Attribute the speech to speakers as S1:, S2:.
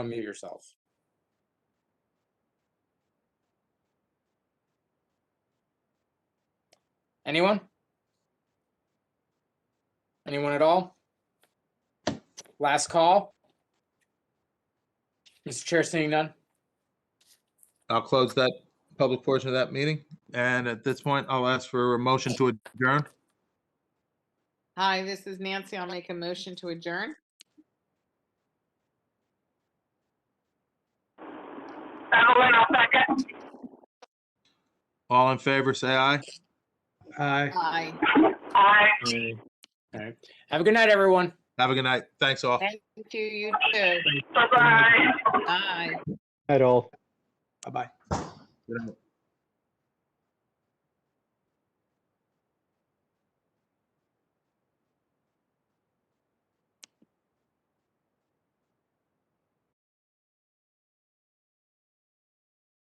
S1: unmute yourself. Anyone? Anyone at all? Last call? Mr. Chair, seeing none?
S2: I'll close that public portion of that meeting. And at this point, I'll ask for a motion to adjourn.
S3: Hi, this is Nancy. I'll make a motion to adjourn.
S4: Evelyn, I'll second.
S2: All in favor, say aye.
S5: Aye.
S3: Aye.
S4: Aye.
S1: All right. Have a good night, everyone.
S2: Have a good night. Thanks all.
S3: Thank you, you too.
S4: Bye-bye.
S3: Aye.
S5: At all. Bye-bye.
S2: Good night.